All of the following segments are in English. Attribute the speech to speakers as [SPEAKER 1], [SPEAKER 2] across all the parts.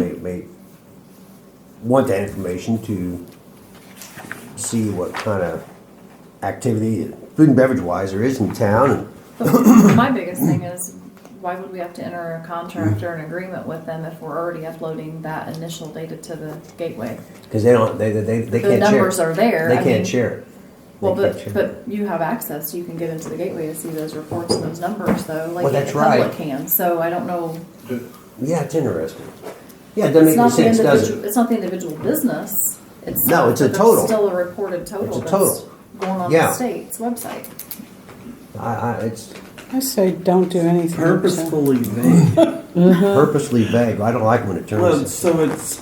[SPEAKER 1] I want that information to see what kind of activity, food and beverage wise, there is in town. And
[SPEAKER 2] My biggest thing is, why would we have to enter a contract or an agreement with them if we're already uploading that initial data to the gateway?
[SPEAKER 1] Because they don't, they, they, they
[SPEAKER 2] The
[SPEAKER 1] can't share.
[SPEAKER 2] numbers
[SPEAKER 1] it.
[SPEAKER 2] are there.
[SPEAKER 1] They
[SPEAKER 2] I mean,
[SPEAKER 1] can't share it.
[SPEAKER 2] Well,
[SPEAKER 1] They can't
[SPEAKER 2] but,
[SPEAKER 1] share it.
[SPEAKER 2] but you have access, you can get into the gateway to see those reports and those numbers though, like
[SPEAKER 1] Well,
[SPEAKER 2] the
[SPEAKER 1] that's right.
[SPEAKER 2] public can, so I don't know.
[SPEAKER 1] Yeah, it's interesting. Yeah, it doesn't make any
[SPEAKER 2] It's not the
[SPEAKER 1] sense, does
[SPEAKER 2] individual,
[SPEAKER 1] it?
[SPEAKER 2] it's not the individual business, it's.
[SPEAKER 1] No, it's a
[SPEAKER 2] but there's
[SPEAKER 1] total.
[SPEAKER 2] Still a reported total
[SPEAKER 1] It's a total.
[SPEAKER 2] that's going on
[SPEAKER 1] Yeah.
[SPEAKER 2] the state's website.
[SPEAKER 1] I, I, it's
[SPEAKER 3] I say don't do anything. so-
[SPEAKER 4] Purposefully vague.
[SPEAKER 2] Uh-huh.
[SPEAKER 1] purposely vague. I don't like when it
[SPEAKER 4] Well,
[SPEAKER 1] turns.
[SPEAKER 4] so it's,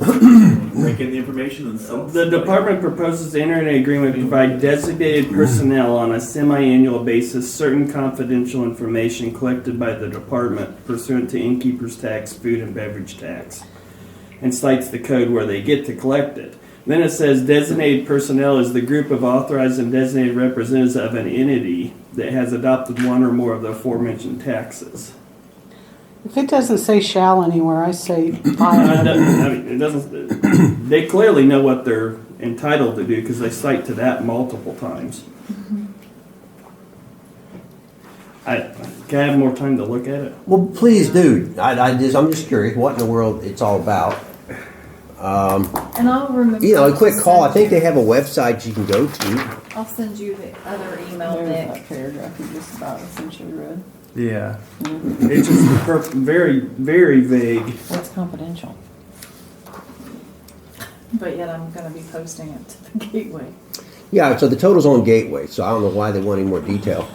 [SPEAKER 5] breaking the information and stuff.
[SPEAKER 4] the department proposes to enter an agreement to provide designated personnel on a semi-annual basis certain confidential information collected by the department pursuant to innkeeper's tax, food and beverage tax, and cites the code where they get to collect it. Then it says designated personnel is the group of authorized and designated representatives of an entity that has adopted one or more of the aforementioned taxes.
[SPEAKER 3] If it doesn't say shall anywhere, I say
[SPEAKER 4] Uh, it
[SPEAKER 3] by.
[SPEAKER 4] doesn't- I mean, it doesn't. They clearly know what they're entitled to do because they cite to that multiple times. I can I have more time to look at it.
[SPEAKER 1] Well, please do. I, I just, I'm just curious what in the world it's all about. Um,
[SPEAKER 2] And I'll remember.
[SPEAKER 1] you know, a
[SPEAKER 2] to
[SPEAKER 1] quick call. I
[SPEAKER 2] send
[SPEAKER 1] think
[SPEAKER 2] you-
[SPEAKER 1] they have a website you can go to.
[SPEAKER 2] I'll send you the other email,
[SPEAKER 3] There's
[SPEAKER 2] Nick.
[SPEAKER 3] that paragraph you just about essentially read.
[SPEAKER 4] Yeah, it's just per- very very vague.
[SPEAKER 3] What's confidential?
[SPEAKER 2] But yet I'm gonna be posting it to the gateway.
[SPEAKER 1] Yeah, so the total's on Gateway, so I don't know why they want any more detail.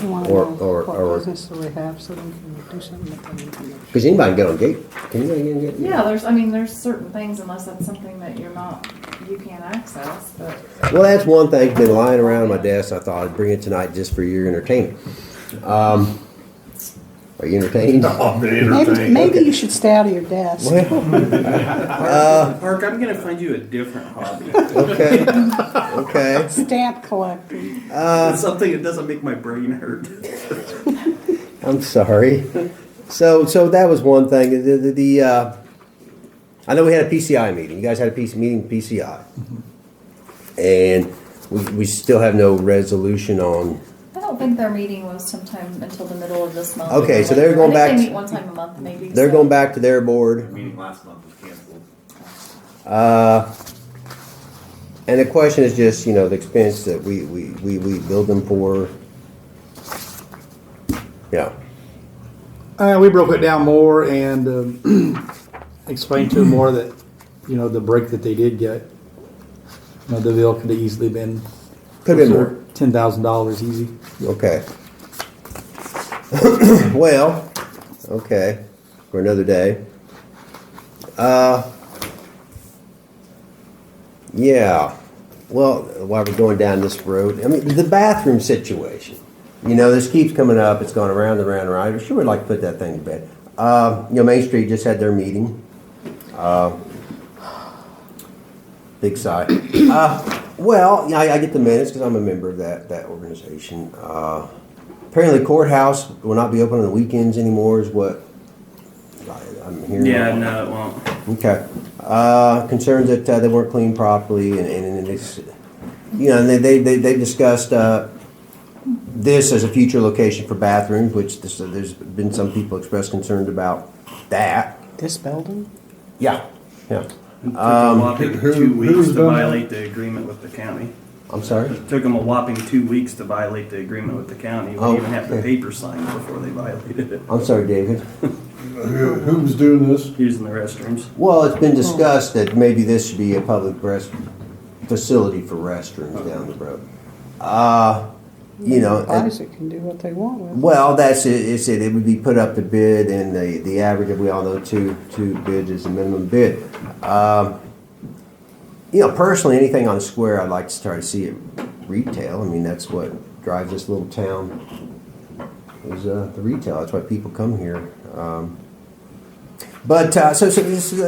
[SPEAKER 3] We want to
[SPEAKER 1] Or-
[SPEAKER 3] know
[SPEAKER 1] or-
[SPEAKER 3] what
[SPEAKER 1] or-
[SPEAKER 3] business do we have so we can do something with that information.
[SPEAKER 1] Because anybody can get on Gate. Can anybody get on Gateway?
[SPEAKER 2] Yeah, there's, I mean, there's certain things unless that's something that you're not, you can't access, but.
[SPEAKER 1] Well, that's one thing. It's Been lying around my desk. I thought I'd bring it tonight just for your entertainment. Um, are you entertained?
[SPEAKER 3] Maybe, maybe you should stay out of your desk.
[SPEAKER 1] Well,
[SPEAKER 4] Uh, Park, I'm gonna find you a different hobby.
[SPEAKER 1] okay, okay.
[SPEAKER 3] Stamp collecting.
[SPEAKER 4] Something that doesn't make my brain hurt.
[SPEAKER 1] I'm sorry. So, so that was one thing. The, the, the uh, I know we had a PCI meeting. You guys had a PC meeting, PCI, and we, we still have no resolution on.
[SPEAKER 2] I don't think their meeting was sometime until the middle of this month.
[SPEAKER 1] Okay, so they're going
[SPEAKER 2] I
[SPEAKER 1] back
[SPEAKER 2] think They
[SPEAKER 1] to-
[SPEAKER 2] meet one time a month, maybe.
[SPEAKER 1] They're
[SPEAKER 2] so-
[SPEAKER 1] going back to their board.
[SPEAKER 5] Meeting last month was canceled.
[SPEAKER 1] Uh, And the question is just, you know, the expense that we, we, we, we build them for. Yeah,
[SPEAKER 6] Uh, we broke it down more and um, explained to them more that, you know, the break that they did get, you know, the bill could have easily been
[SPEAKER 1] Could have been more.
[SPEAKER 6] ten thousand dollars easy.
[SPEAKER 1] okay. Well, okay, for another day. Uh, yeah, well, while we're going down this road, I mean, the bathroom situation. You know, this keeps coming up, it's going around and around and around. I sure would like to put that thing to bed. Uh, you know, Main Street just had their meeting. Uh, Big sigh. Uh, well, yeah, I, I get the minutes because I'm a member of that, that organization. Uh, apparently courthouse will not be open on the weekends anymore is what I, I'm hearing.
[SPEAKER 4] Yeah, no, it won't.
[SPEAKER 1] Okay. Uh, concerns that uh, they weren't cleaned properly and, and, and it's, you know, and they, they, they, they discussed, uh, this as a future location for bathrooms, which this, uh, there's been some people expressed concerns about that.
[SPEAKER 3] This building?
[SPEAKER 1] Yeah. Yeah.
[SPEAKER 4] It took a whopping
[SPEAKER 6] Um, who-
[SPEAKER 4] two weeks
[SPEAKER 6] who's
[SPEAKER 4] to
[SPEAKER 6] done that?
[SPEAKER 4] violate the agreement with the county.
[SPEAKER 1] I'm sorry.
[SPEAKER 4] It took them a whopping two weeks to violate the agreement with the county. We
[SPEAKER 1] Oh,
[SPEAKER 4] even have the
[SPEAKER 1] okay.
[SPEAKER 4] paper signed before they violated it,
[SPEAKER 1] I'm sorry, David.
[SPEAKER 7] Who who was doing this?
[SPEAKER 4] using the restrooms.
[SPEAKER 1] Well, it's been discussed that maybe this should be a public rest, facility for restrooms down the road. Uh, you know, and-
[SPEAKER 3] Isaac can do what they want with it.
[SPEAKER 1] well, that's it, it's it, it would be put up to bid and the, the average, of we all know, two, two bids is the minimum bid. Um, you know, personally, anything on the square, I'd like to start to see it retail, I mean, that's what drives this little town, is, uh, the retail, that's why people come here. Um, But, uh, so, so this, uh,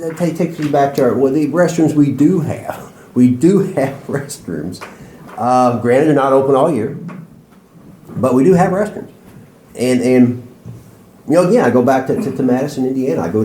[SPEAKER 1] that ta- takes me back to our, well, the restrooms we do have, we do have restrooms. Uh, granted, they're not open all year, but we do have restrooms. And and you know, again, I go back to, to, to Madison, Indiana. I go